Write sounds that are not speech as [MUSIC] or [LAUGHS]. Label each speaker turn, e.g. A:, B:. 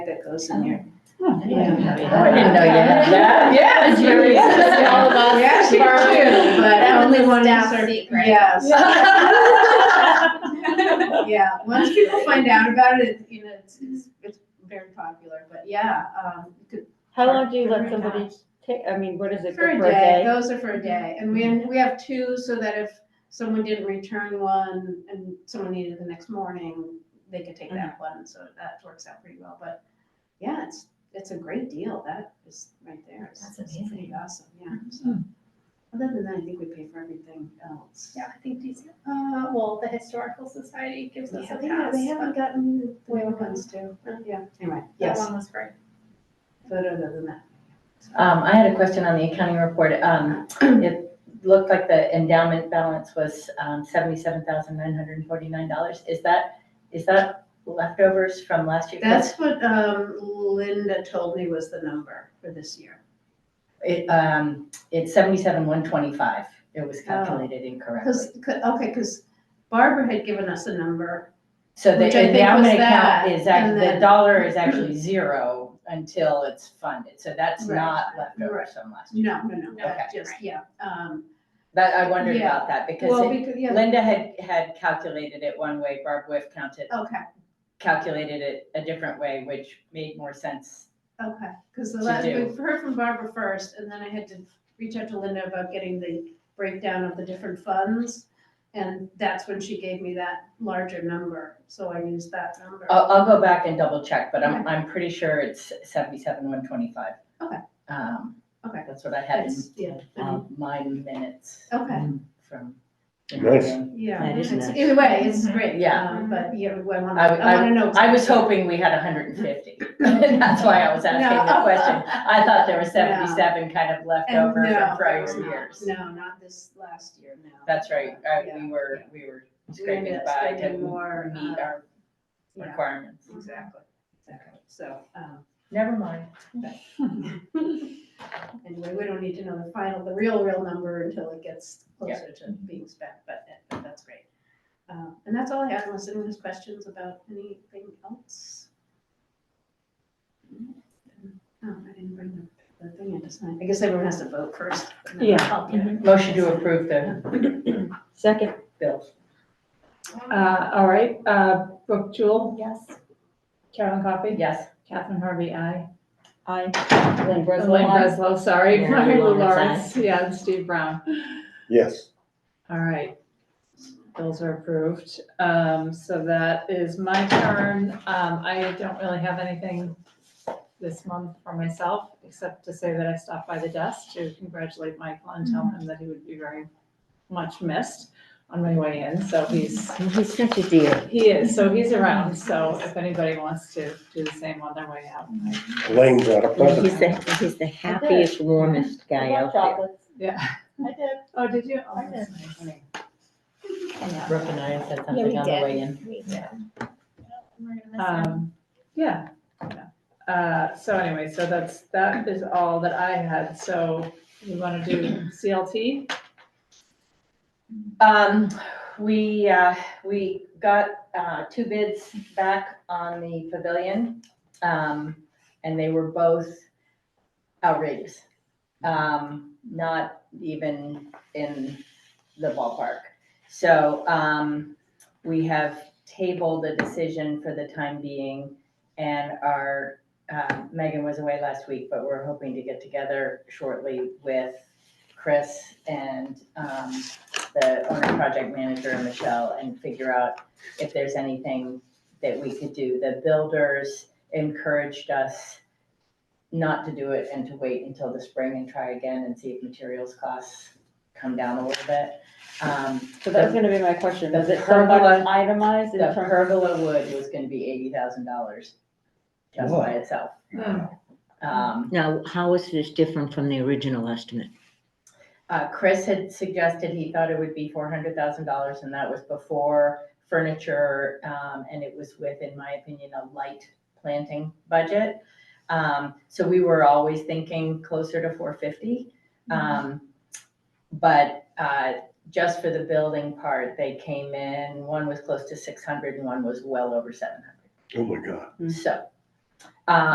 A: that goes in there.
B: I didn't know you had that.
C: Yeah,
A: [LAUGHS]
B: it's very- it's all about
A: Yeah, she
B: tomorrow,
A: did.
B: but only one
A: That was a staff
B: is-
A: secret. [LAUGHS]
B: Yes.
A: Yeah, once people find out about it, you know, it's, it's, it's very popular, but yeah, um, you could-
D: How long do you
A: For
D: let
A: a
D: somebody take, I mean, what is it,
A: for a
D: for
A: day,
D: a day?
A: those are for a day, and we, we have two, so that if someone didn't return one and someone needed the next morning, they could take that one, so that works out pretty well, but yeah, it's, it's a great deal, that is right there. It's-
C: That's
A: it's Pretty awesome, yeah, so.
B: Hmm.
A: Other than that, I think we pay for everything else.
E: [LAUGHS] Yeah, I think these, uh, well, the Historical Society gives us a
A: Yeah,
E: pass.
A: they haven't
E: but
A: gotten the
E: Way
A: new
E: over.
A: ones too.
E: Oh.
A: Yeah, anyway,
E: That
A: yes,
E: one was great.
A: but other than that.
B: Um, I had a question on the accounting report. Um, it looked like the endowment balance was, um, seventy-seven thousand nine hundred and forty-nine dollars. Is that, is that leftovers from last year? 'Cause
A: That's what um, Linda told me was the number for this year.
B: It, um, it's seventy-seven one twenty-five. It
A: Oh.
B: was calculated incorrectly.
A: Because, okay, because Barbara had given us a number.
B: So the
A: Which I think was
B: endowment account
A: that,
B: is act,
A: and
B: the
A: then-
B: dollar is actually zero until it's funded, so that's
A: Right.
B: not leftovers
A: Right.
B: from last year.
A: No, no, no,
B: Okay.
A: that just, yeah. um,
B: But I wondered
A: Yeah.
B: about that, because
A: Well,
B: it-
A: because, yeah,
B: Linda had, had calculated it one way, Barb Whiff counted,
A: okay,
B: calculated it a different way, which made more sense.
A: okay. Because the
B: To
A: last, we
B: do.
A: heard from Barbara first, and then I had to reach out to Linda about getting the breakdown of the different funds. And that's when she gave me that larger number, so I used that number.
B: I'll, I'll go back and double check, but I'm, I'm pretty sure it's seventy-seven, one twenty-five.
A: Okay.
B: Um,
A: Okay.
B: that's what I had in,
A: It's- Yeah, Oh.
B: um, my minutes
A: okay,
B: from.
F: Nice.
A: yeah.
D: That is
A: It's-
D: nice.
A: Either way, it's
C: Mhm.
A: great.
B: Yeah.
A: um, But, yeah, I want
B: I-
A: to, I want to know.
B: I was
A: exactly.
B: hoping we had hundred
A: [LAUGHS]
B: and fifty, [LAUGHS] that's why I was asking the
A: No.
B: question. I
A: [LAUGHS]
B: thought there was
A: No.
B: seventy-seven kind of left
A: And
B: over
A: no,
B: from prior
A: there's not.
B: years.
A: No, not this last year, no.
B: That's right, uh,
A: Yeah,
B: we were, we were
A: ended
B: scraping
A: up
B: by to
A: spending more,
B: meet
A: uh,
B: our
A: yeah.
B: requirements.
A: Exactly, exactly, so, um,
B: Never mind.
A: anyway, we don't need to know the final, the real, real number until it gets closer to being spent, but, that- but that's great. Um, and that's all I have, unless anyone has questions about anything else? Oh, I didn't bring the, the thing in to sign, I guess everyone has to vote first. and then
D: Yeah.
A: I'll do it.
B: Motion to approve the
D: Second,
B: bills.
D: uh, all right, uh, Brooke Jewel,
C: Yes.
D: Carolyn Coffey,
B: Yes.
D: Catherine Harvey, aye.
C: I.
D: Lynn
C: Breslow, aye.
D: Breslow, sorry, [LAUGHS]
C: Mary
D: Mary Lou
C: Lawrence, aye.
D: Lawrence, yeah, and Steve Brown.
F: Yes.
D: All right, bills are approved. Um, so that is my turn. Um, I don't really have anything this month for myself, except to say that I stopped by the desk to congratulate Michael and tell him that he would be very much missed on my way in, so he's
B: He's such a dear.
D: He is, so he's around, so if anybody wants to do the same on their way out.
F: Elaine's out of Pleasant.
G: He's the, he's the happiest, warmest guy out there.
D: Yeah.
C: I did.
D: Oh, did you? Oh,
C: I
D: that's nice.
B: Brooke and I said
C: Yeah, we
B: something on the
C: did.
B: way in.
C: We did. We're gonna miss him.
D: Um, yeah. yeah. Uh, so anyway, so that's, that is all that I had, so we wanna do CLT?
B: Um, we, uh, we got, uh, two bids back on the pavilion. Um, and they were both outrageous. Um, not even in the ballpark. So, um, we have tabled a decision for the time being and our, uh, Megan was away last week, but we're hoping to get together shortly with Chris and, um, the owner project manager, Michelle, and figure out if there's anything that we could do. The builders encouraged us not to do it and to wait until the spring and try again and see if materials costs come down a little bit. Um,
G: So that was gonna be my question, was it
B: The
G: somewhat
B: pergola-
G: itemized in
B: The
G: terms?
B: pergola wood was gonna be eighty thousand dollars just by itself. Um,
G: Now, how is this different from the original estimate?
B: Uh, Chris had suggested he thought it would be four hundred thousand dollars, and that was before furniture, um, and it was with, in my opinion, a light planting budget. Um, so we were always thinking closer to four fifty. Um, but, uh, just for the building part, they came in, one was close to six hundred and one was well over seven hundred.
F: Oh, my God.
G: Mm.
B: So, Um,